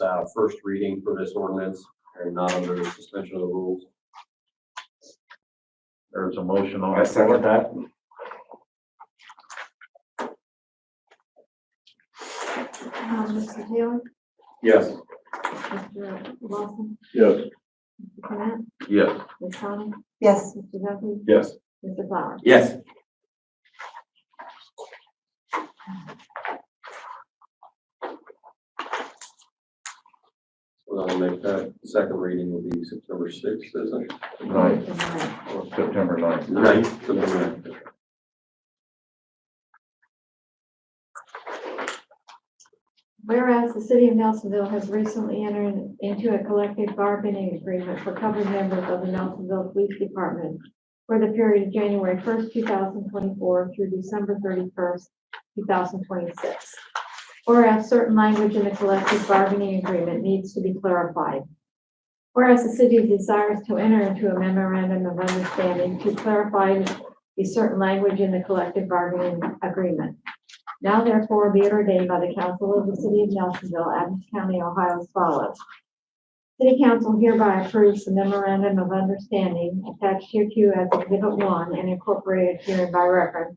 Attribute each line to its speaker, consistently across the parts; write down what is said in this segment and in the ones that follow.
Speaker 1: uh, first reading for this ordinance and not under the suspension of the rules.
Speaker 2: There's a motion on
Speaker 3: I
Speaker 2: the floor.
Speaker 3: second that.
Speaker 4: Um, Mr. Taylor?
Speaker 1: Yes.
Speaker 4: Mr. Lawson?
Speaker 2: Yes.
Speaker 4: Mr. Clement?
Speaker 2: Yes.
Speaker 4: Ms. Sonic?
Speaker 5: yes,
Speaker 4: Mr. Duffy?
Speaker 2: Yes.
Speaker 4: Mr. Flower?
Speaker 3: Yes,
Speaker 1: Well, I'll make that second reading will be September sixth, isn't it?
Speaker 2: Ninth,
Speaker 4: Mr.
Speaker 2: September ninth.
Speaker 1: Ninth, September ninth.
Speaker 4: Whereas the city of Nelsonville has recently entered into a collective bargaining agreement for covered members of the Nelsonville Police Department for the period of January first, two thousand twenty-four through December thirty-first, two thousand twenty-six. Whereas certain language in the collective bargaining agreement needs to be clarified. Whereas the city desires to enter into a memorandum of understanding to clarify the certain language in the collective bargaining agreement. Now therefore be it ordained by the council of the city of Nelsonville, Adams County, Ohio as follows. City council hereby approves the memorandum of understanding attached hereto as exhibit one and incorporated herein by reference,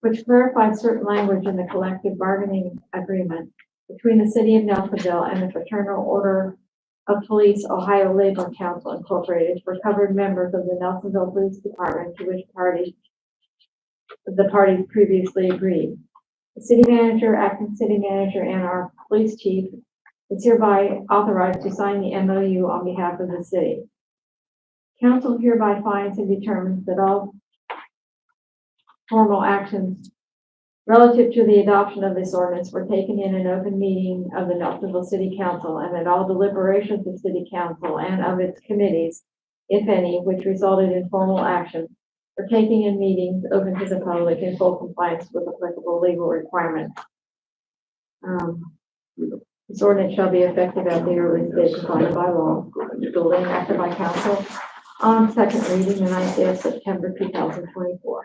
Speaker 4: which clarifies certain language in the collective bargaining agreement between the city of Nelsonville and the Fraternal Order of Police Ohio Labor Council Incorporated for covered members of the Nelsonville Police Department to which party the parties previously agreed. The city manager, acting city manager, and our police chief is hereby authorized to sign the MOU on behalf of the city. Council hereby finds and determines that all formal actions relative to the adoption of this ordinance were taken in an open meeting of the Nelsonville City Council, and that all deliberations of city council and of its committees, if any, which resulted in formal action, for taking in meetings open to the public in full compliance with applicable legal requirements. Um, This ordinance shall be effective at the earliest date provided by law, duly enacted by council on second reading the ninth day of September two thousand twenty-four.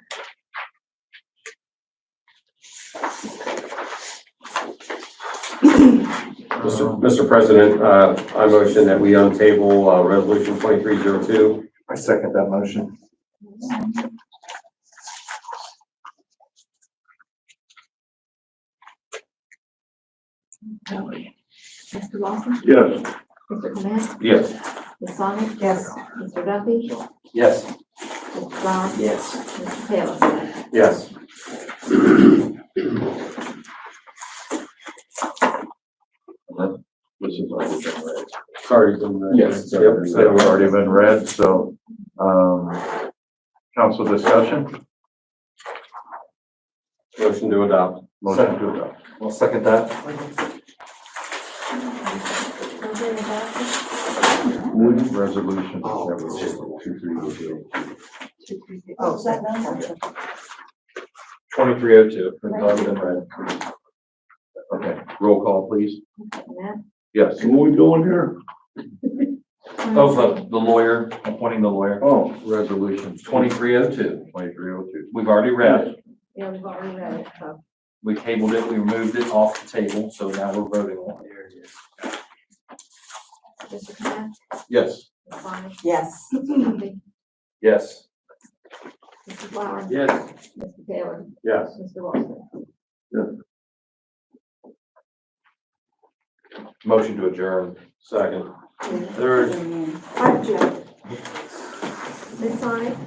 Speaker 1: Mr. Mr. President, uh, I motion that we untable, uh, resolution twenty-three zero two.
Speaker 3: I second that motion.
Speaker 4: Mr. Lawson?
Speaker 2: Yes.
Speaker 4: Mr. Clement?
Speaker 1: Yes.
Speaker 4: Ms. Sonic?
Speaker 5: yes,
Speaker 4: Mr. Duffy?
Speaker 3: Yes.
Speaker 4: Mr. Flower?
Speaker 3: Yes.
Speaker 4: Mr. Taylor?
Speaker 1: Yes.
Speaker 2: This is already been read.
Speaker 1: Sorry. didn't, uh,
Speaker 3: Yes.
Speaker 1: Yep.
Speaker 2: It's already been read, so, um, council discussion,
Speaker 1: Motion to adopt.
Speaker 2: motion to adopt.
Speaker 3: I'll second that.
Speaker 2: Resolution.
Speaker 5: oh, is that number?
Speaker 1: Twenty-three oh two.
Speaker 2: It's already been read. Okay, roll call, please.
Speaker 4: Mr. Clement?
Speaker 2: Yes.
Speaker 6: What we doing here?
Speaker 3: Over the lawyer, appointing the lawyer,
Speaker 2: Oh, resolution.
Speaker 3: twenty-three oh two.
Speaker 2: Twenty-three oh two.
Speaker 3: We've already read it.
Speaker 4: Yeah, we've already read uh, it, so.
Speaker 3: We tabled it, we removed it off the table, so now we're voting on it.
Speaker 4: Mr. Clement?
Speaker 2: Yes.
Speaker 4: Ms. Sonic?
Speaker 5: yes,
Speaker 4: Mr. Duffy?
Speaker 3: Yes.
Speaker 4: Mr. Flower?
Speaker 1: Yes.
Speaker 4: Mr. Taylor?
Speaker 1: Yes.
Speaker 4: Mr. Lawson?
Speaker 3: Motion to adjourn.
Speaker 1: Second. Third.
Speaker 4: Hi, Jim. Ms. Sonic?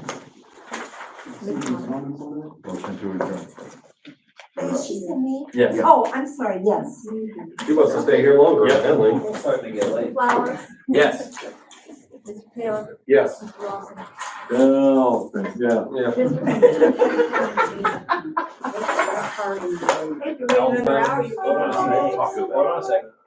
Speaker 4: Ms. Sonic?
Speaker 2: Motion to adjourn.
Speaker 5: Is she sent me?
Speaker 3: Yes.
Speaker 5: Oh, I'm sorry, yes.
Speaker 1: She wants to stay here longer,
Speaker 3: Yeah.
Speaker 1: evidently.
Speaker 3: starting to get late.
Speaker 4: Flowers?
Speaker 3: Yes.
Speaker 4: Mr. Taylor?
Speaker 1: Yes.
Speaker 4: Mr. Lawson?
Speaker 6: Oh, yeah.
Speaker 1: Yeah.
Speaker 4: Mr.
Speaker 5: If you wait another hour, you.
Speaker 1: Hold on a second.
Speaker 5: Hold on a second.